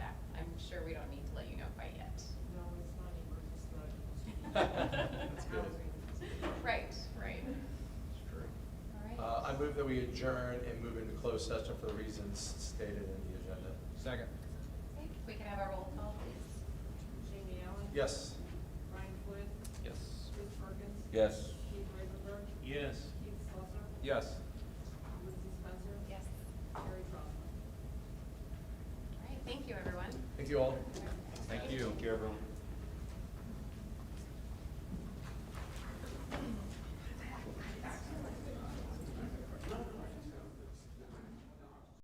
That's good. Right, right. All right. Uh, I move that we adjourn and move into closed session for the reasons stated in the agenda. Second. Okay, if we can have a roll call, please. Jamie Allen? Yes? Brian Floyd? Yes. Chris Perkins? Yes. Keith Ravenberg? Yes. Keith Slaughter? Yes. Lindsey Spencer? Yes. Carrie Bronson? All right, thank you, everyone. Thank you all. Thank you. Thank you, everyone.